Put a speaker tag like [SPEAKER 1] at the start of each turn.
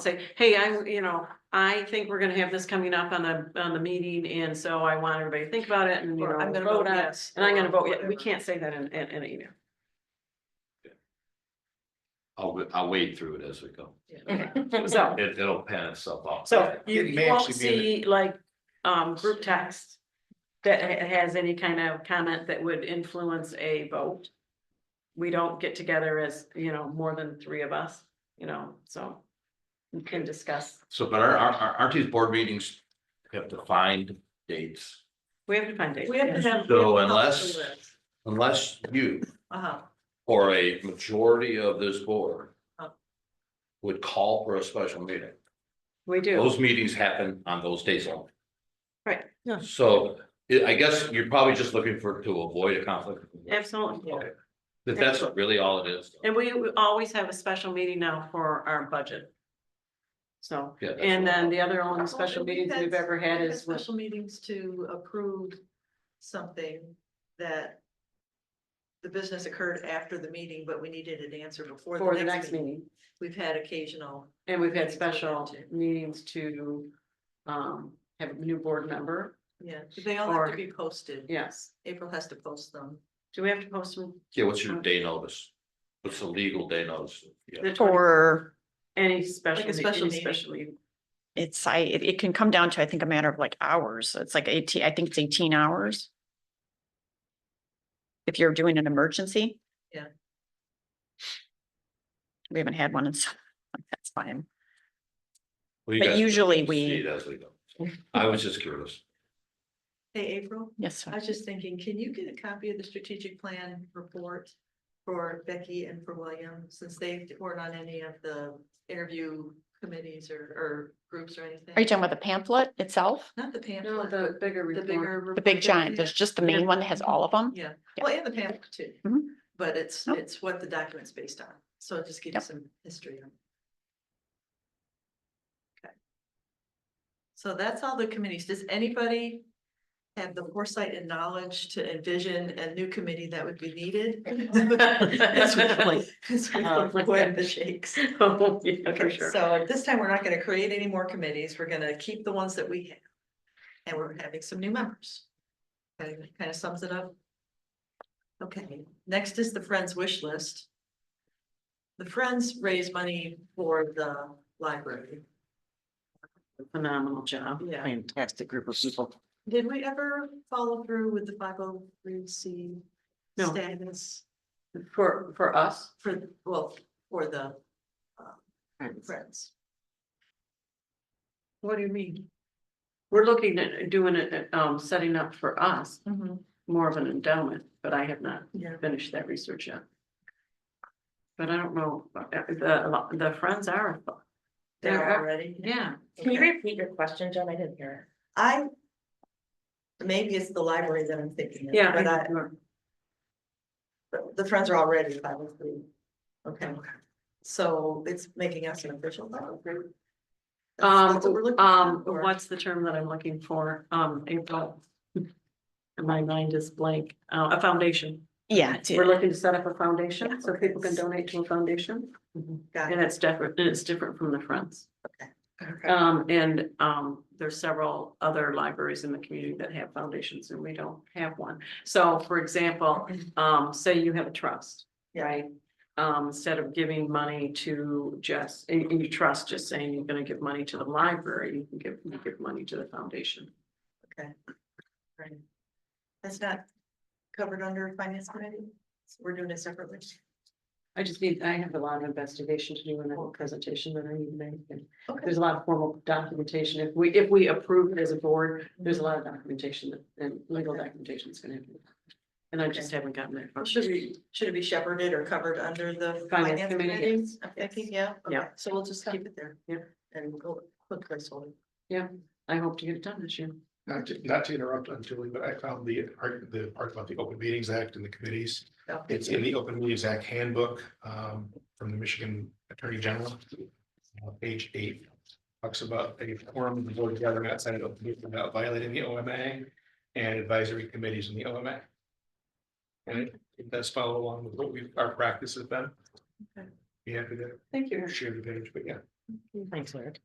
[SPEAKER 1] say, hey, I, you know, I think we're gonna have this coming up on the, on the meeting, and so I want everybody to think about it and, you know,
[SPEAKER 2] Or I'm gonna
[SPEAKER 1] vote
[SPEAKER 2] vote
[SPEAKER 1] on it.
[SPEAKER 2] yes.
[SPEAKER 1] And I'm gonna
[SPEAKER 2] or
[SPEAKER 1] vote, yeah, we
[SPEAKER 2] whatever.
[SPEAKER 1] can't say that in, in, in an email.
[SPEAKER 3] I'll, w- I'll wade through it as we go.
[SPEAKER 1] Okay. So,
[SPEAKER 3] It, it'll pan itself out.
[SPEAKER 1] so you
[SPEAKER 4] It
[SPEAKER 1] you
[SPEAKER 4] may
[SPEAKER 1] won't
[SPEAKER 4] actually be
[SPEAKER 1] see like, um, group text that ha- has any kind of comment that would influence a vote. We don't get together as, you know, more than three of us, you know, so we can discuss.
[SPEAKER 3] So, but our, our, our, aren't these board meetings have defined dates?
[SPEAKER 1] We have to find dates.
[SPEAKER 2] We have to
[SPEAKER 1] yes.
[SPEAKER 2] have.
[SPEAKER 3] So unless- Unless you,
[SPEAKER 2] Uh
[SPEAKER 1] Uh-huh.
[SPEAKER 2] huh,
[SPEAKER 3] or a majority of this board
[SPEAKER 1] Oh.
[SPEAKER 3] would call for a special meeting.
[SPEAKER 1] We do,
[SPEAKER 3] Those meetings happen on those days only.
[SPEAKER 1] Right,
[SPEAKER 2] yeah.
[SPEAKER 3] So I I guess you're probably just looking for, to avoid a conflict.
[SPEAKER 1] absolutely.
[SPEAKER 2] yeah.
[SPEAKER 3] That that's really all it is.
[SPEAKER 1] And we we always have a special meeting now for our budget. So,
[SPEAKER 3] Yeah, that's-
[SPEAKER 1] and then the other only special meetings we've ever had is with,
[SPEAKER 2] Special meetings to approve something that the business occurred after the meeting, but we needed an answer before.
[SPEAKER 1] for the next meeting.
[SPEAKER 2] We've had occasional,
[SPEAKER 1] And we've had
[SPEAKER 2] Meetings with them
[SPEAKER 1] special
[SPEAKER 2] too.
[SPEAKER 1] meetings to um have a new board member,
[SPEAKER 2] yeah, they all have
[SPEAKER 1] Or-
[SPEAKER 2] to be posted.
[SPEAKER 1] yes.
[SPEAKER 2] April has to post them.
[SPEAKER 1] Do we have to post them?
[SPEAKER 3] Yeah, what's your day notice? What's the legal day notice? Yeah.
[SPEAKER 1] The 20
[SPEAKER 5] Or
[SPEAKER 1] Any special,
[SPEAKER 2] Like a
[SPEAKER 1] meet-
[SPEAKER 2] special
[SPEAKER 1] any
[SPEAKER 2] meeting.
[SPEAKER 1] special meeting.
[SPEAKER 5] it's, I, it, it can come down to, I think, a matter of like hours. It's like eighteen, I think it's eighteen hours. If you're doing an emergency.
[SPEAKER 2] Yeah.
[SPEAKER 5] We haven't had one, and so that's fine.
[SPEAKER 3] Well, you
[SPEAKER 5] But
[SPEAKER 3] guys can
[SPEAKER 5] usually we-
[SPEAKER 3] see it As we go. I was just curious.
[SPEAKER 2] Hey, April,
[SPEAKER 5] Yes,
[SPEAKER 2] I was just thinking, can you get a copy of the strategic plan report for Becky and for William, since they weren't on any of the interview committees or, or groups or anything?
[SPEAKER 5] are you talking about the pamphlet itself?
[SPEAKER 2] Not the
[SPEAKER 1] No,
[SPEAKER 2] pamphlet,
[SPEAKER 1] the
[SPEAKER 2] but
[SPEAKER 1] bigger
[SPEAKER 2] the
[SPEAKER 1] report.
[SPEAKER 2] bigger.
[SPEAKER 5] The
[SPEAKER 2] report
[SPEAKER 5] big
[SPEAKER 2] that
[SPEAKER 5] giant,
[SPEAKER 2] we
[SPEAKER 5] there's
[SPEAKER 2] have?
[SPEAKER 5] just the main one that has all of them?
[SPEAKER 2] Yeah,
[SPEAKER 5] yeah.
[SPEAKER 2] well, and the pamphlet too.
[SPEAKER 5] Mhm.
[SPEAKER 2] But it's,
[SPEAKER 5] Nope.
[SPEAKER 2] it's what the document's based on, so it just gives you
[SPEAKER 5] Yep.
[SPEAKER 2] some history. on it. Okay. So that's all the committees. Does anybody have the foresight and knowledge to envision a new committee that would be needed? As we
[SPEAKER 1] Like-
[SPEAKER 2] as
[SPEAKER 5] Uh,
[SPEAKER 1] Oh,
[SPEAKER 2] we avoid the shakes.
[SPEAKER 1] Oh, yeah, for
[SPEAKER 2] Okay,
[SPEAKER 1] sure.
[SPEAKER 2] so at this time, we're not gonna create any more committees, we're gonna keep the ones that we have. And we're having some new members. Kind of- kind of sums it up. Okay, next is the Friends wish list. The Friends raise money for the library.
[SPEAKER 1] Phenomenal job.
[SPEAKER 2] Yeah.
[SPEAKER 1] Fantastic group of people.
[SPEAKER 2] Did we ever follow through with the five oh three C
[SPEAKER 1] No.
[SPEAKER 2] status
[SPEAKER 1] For, for us.
[SPEAKER 2] for, well, for the uh, Friends?
[SPEAKER 1] What do you mean? We're looking at doing it, um, setting up for us more of an endowment, but I have not
[SPEAKER 2] Yeah.
[SPEAKER 1] finished that research yet. But I don't know, uh, the, the friends are.
[SPEAKER 2] There already?
[SPEAKER 1] Yeah,
[SPEAKER 2] Can you
[SPEAKER 6] repeat your question, John? I didn't hear
[SPEAKER 2] I. Maybe it's the library that I'm thinking of.
[SPEAKER 1] yeah.
[SPEAKER 2] But I,
[SPEAKER 1] I-
[SPEAKER 2] but the friends are already five oh three. Okay, so it's making us an official. 503. That's- that's what we're
[SPEAKER 1] Um,
[SPEAKER 2] looking
[SPEAKER 1] um,
[SPEAKER 2] for.
[SPEAKER 1] what's the term that I'm looking for? Um, April. My mind is blank, uh, a foundation.
[SPEAKER 5] Yeah. it's-
[SPEAKER 1] We're looking to set up a foundation so people can donate to a foundation.
[SPEAKER 2] Got
[SPEAKER 1] And
[SPEAKER 2] it.
[SPEAKER 1] it's different, and it's different from the friends.
[SPEAKER 2] Okay.
[SPEAKER 1] Um, and, um, there's several other libraries in the community that have foundations and we don't have one. So for example,
[SPEAKER 2] Mm-hmm.
[SPEAKER 1] um, say you have a trust,
[SPEAKER 2] Yeah.
[SPEAKER 1] right? Um, instead of giving money to just, and, and you trust just saying you're gonna give money to the library, you can give, you give money to the foundation.
[SPEAKER 2] Right. That's not covered under finance committee? So We're doing it separately?
[SPEAKER 1] I just need, I have a lot of investigation to do in that presentation that I need to make. and
[SPEAKER 2] Okay.
[SPEAKER 1] There's a lot of formal documentation. If we, if we approve it as a board, there's a lot of documentation that, and legal
[SPEAKER 2] Okay.
[SPEAKER 1] documentation is gonna happen. And I just haven't gotten that. far.
[SPEAKER 2] Should we, should it be shepherded or covered under the
[SPEAKER 1] Finance
[SPEAKER 2] finance
[SPEAKER 1] committee,
[SPEAKER 2] committee?
[SPEAKER 1] yes.
[SPEAKER 2] I'm thinking, yeah. okay.
[SPEAKER 1] Yeah.
[SPEAKER 2] So we'll just keep it there.
[SPEAKER 1] Yeah.
[SPEAKER 2] And go put placeholder.
[SPEAKER 1] I hope to get it done this year.
[SPEAKER 4] Not to, not to interrupt unduly, but I found the, art- the part about the Open Meetings Act and the committees.
[SPEAKER 2] Oh.
[SPEAKER 4] It's in the Open Meetings Act handbook, um, from the Michigan Attorney General. Uh, Page eight talks about a forum of the board gathering outside of open meeting without violating the OMA and advisory committees in the OMA. And it it does follow along with what we, our practice has been.
[SPEAKER 2] Okay.
[SPEAKER 4] Be happy to
[SPEAKER 1] Thank you.
[SPEAKER 4] share the page, but yeah,
[SPEAKER 1] Thanks, Eric.